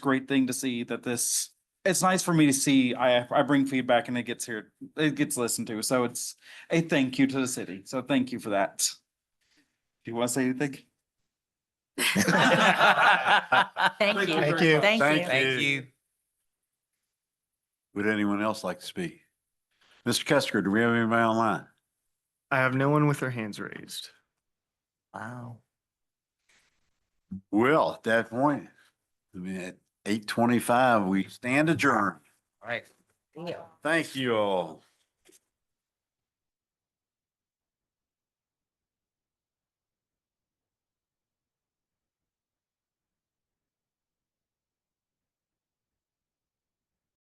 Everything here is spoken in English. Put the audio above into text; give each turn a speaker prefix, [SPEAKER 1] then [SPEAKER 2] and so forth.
[SPEAKER 1] great thing to see that this, it's nice for me to see, I, I bring feedback and it gets here, it gets listened to, so it's a thank you to the city, so thank you for that. Do you want to say anything?
[SPEAKER 2] Thank you.
[SPEAKER 3] Thank you.
[SPEAKER 2] Thank you.
[SPEAKER 4] Thank you.
[SPEAKER 3] Would anyone else like to speak? Mr. Kester, do we have anybody online?
[SPEAKER 5] I have no one with their hands raised.
[SPEAKER 4] Wow.
[SPEAKER 3] Well, at that point, I mean, at eight twenty-five, we stand adjourned.
[SPEAKER 4] All right.
[SPEAKER 3] Thank you all.